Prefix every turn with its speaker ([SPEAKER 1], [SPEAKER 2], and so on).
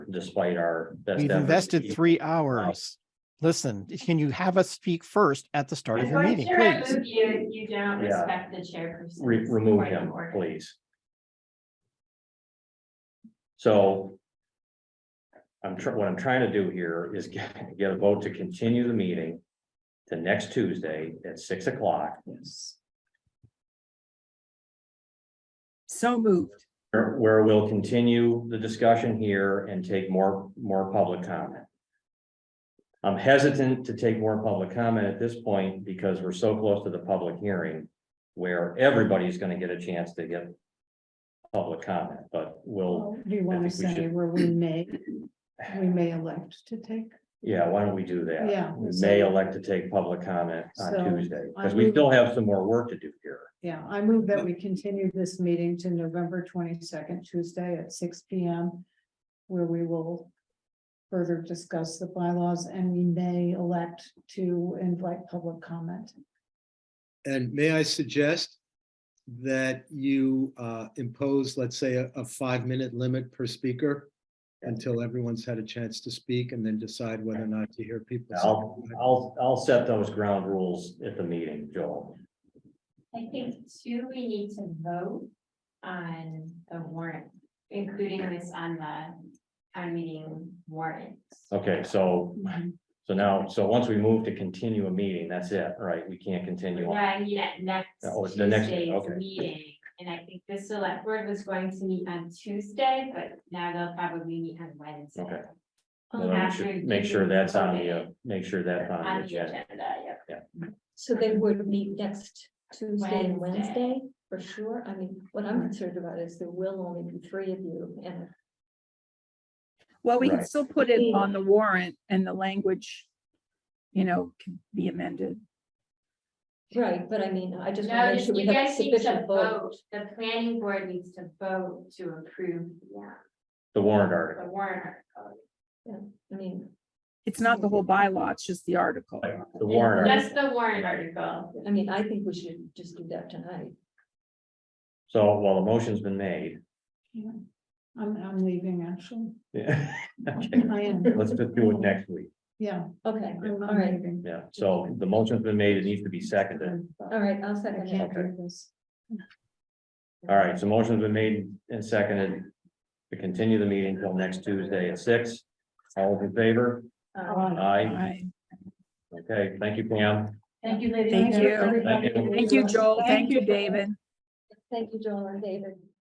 [SPEAKER 1] despite our. best
[SPEAKER 2] We've
[SPEAKER 1] efforts.
[SPEAKER 2] invested three hours. Listen, can you have us speak first at the start of your
[SPEAKER 3] Before
[SPEAKER 2] meeting,
[SPEAKER 3] chair, I
[SPEAKER 2] please?
[SPEAKER 3] move you, you don't
[SPEAKER 1] Yeah.
[SPEAKER 3] respect the chairperson.
[SPEAKER 1] Re- remove him, please. So. I'm trying, what I'm trying to do here is get, get a vote to continue the meeting. To next Tuesday at six o'clock.
[SPEAKER 4] Yes. So moved.
[SPEAKER 1] Where, where we'll continue the discussion here and take more, more public comment. I'm hesitant to take more public comment at this point because we're so close to the public hearing. Where everybody's gonna get a chance to get. Public comment, but we'll,
[SPEAKER 5] Well, Do you want to
[SPEAKER 1] think we
[SPEAKER 5] say
[SPEAKER 1] should-
[SPEAKER 5] where we may, we may elect to take?
[SPEAKER 1] yeah, why don't we do that?
[SPEAKER 5] Yeah,
[SPEAKER 1] We
[SPEAKER 5] so-
[SPEAKER 1] may elect to take public comment
[SPEAKER 5] So,
[SPEAKER 1] on Tuesday, because
[SPEAKER 5] I
[SPEAKER 1] we
[SPEAKER 5] would-
[SPEAKER 1] still have some more work to do here.
[SPEAKER 5] Yeah, I move that we continue this meeting to November twenty-second, Tuesday at six P M. Where we will further discuss the bylaws and we may elect to invite public comment.
[SPEAKER 6] And may I suggest that you uh, impose, let's say, a a five-minute limit per speaker until everyone's had a chance to speak and then decide whether or not to hear people.
[SPEAKER 1] I'll, I'll, I'll set those ground rules at the meeting, Joel.
[SPEAKER 3] I think two, we need to vote on the warrant, including this on the town meeting warrant.
[SPEAKER 1] Okay, so, so now, so once we move to continue a meeting, that's it, right? We can't continue
[SPEAKER 3] Yeah,
[SPEAKER 1] on.
[SPEAKER 3] I mean, at next
[SPEAKER 1] Oh, it's the next-
[SPEAKER 3] Tuesday's
[SPEAKER 1] okay.
[SPEAKER 3] meeting, and I think the select board was going to meet on Tuesday, but now they'll probably meet on Wednesday.
[SPEAKER 1] Okay.
[SPEAKER 3] Um,
[SPEAKER 1] Well, then we
[SPEAKER 3] after
[SPEAKER 1] should Make sure
[SPEAKER 3] you
[SPEAKER 1] that's on the, uh,
[SPEAKER 3] voted
[SPEAKER 1] make sure that's on the agenda.
[SPEAKER 3] yeah.
[SPEAKER 7] So they would meet next Tuesday and
[SPEAKER 3] Wednesday.
[SPEAKER 7] Wednesday, for sure. I mean, what I'm concerned about is there will only be three of you and
[SPEAKER 4] Well, we can
[SPEAKER 1] Right.
[SPEAKER 4] still put it on the warrant and the language, you know, can be amended.
[SPEAKER 7] Right, but I mean, I just want
[SPEAKER 3] No,
[SPEAKER 7] to make sure we
[SPEAKER 3] you
[SPEAKER 7] have
[SPEAKER 3] guys need to
[SPEAKER 7] sufficient vote.
[SPEAKER 3] vote, the planning board needs to vote to approve, yeah,
[SPEAKER 1] The warrant article.
[SPEAKER 3] the warrant article.
[SPEAKER 7] I mean,
[SPEAKER 4] It's not the whole bylaw, it's just the article.
[SPEAKER 1] The warrant article.
[SPEAKER 3] Just the warrant article.
[SPEAKER 7] I mean, I think we should just do that tonight.
[SPEAKER 1] So while the motion's been made.
[SPEAKER 5] Yeah. I'm, I'm leaving actually.
[SPEAKER 1] yeah, okay,
[SPEAKER 5] I am,
[SPEAKER 1] Let's just do it next week.
[SPEAKER 5] yeah,
[SPEAKER 7] Okay,
[SPEAKER 5] I'm
[SPEAKER 7] all
[SPEAKER 5] I'm
[SPEAKER 7] right,
[SPEAKER 5] leaving.
[SPEAKER 1] Yeah, so the motion's been made, it needs to be seconded.
[SPEAKER 7] all right, I'll
[SPEAKER 5] I
[SPEAKER 7] second
[SPEAKER 5] can't
[SPEAKER 7] that.
[SPEAKER 5] do this.
[SPEAKER 1] All right, so motion's been made and seconded to continue the meeting till next Tuesday at six. All those in favor?
[SPEAKER 7] Uh,
[SPEAKER 1] Aye.
[SPEAKER 4] Aye.
[SPEAKER 1] Okay, thank you, Pam.
[SPEAKER 5] Thank you, ladies.
[SPEAKER 4] Thank you.
[SPEAKER 7] everybody.
[SPEAKER 1] Thank
[SPEAKER 4] Thank you, Joel. Thank you, David.
[SPEAKER 7] Thank you, Joel and David.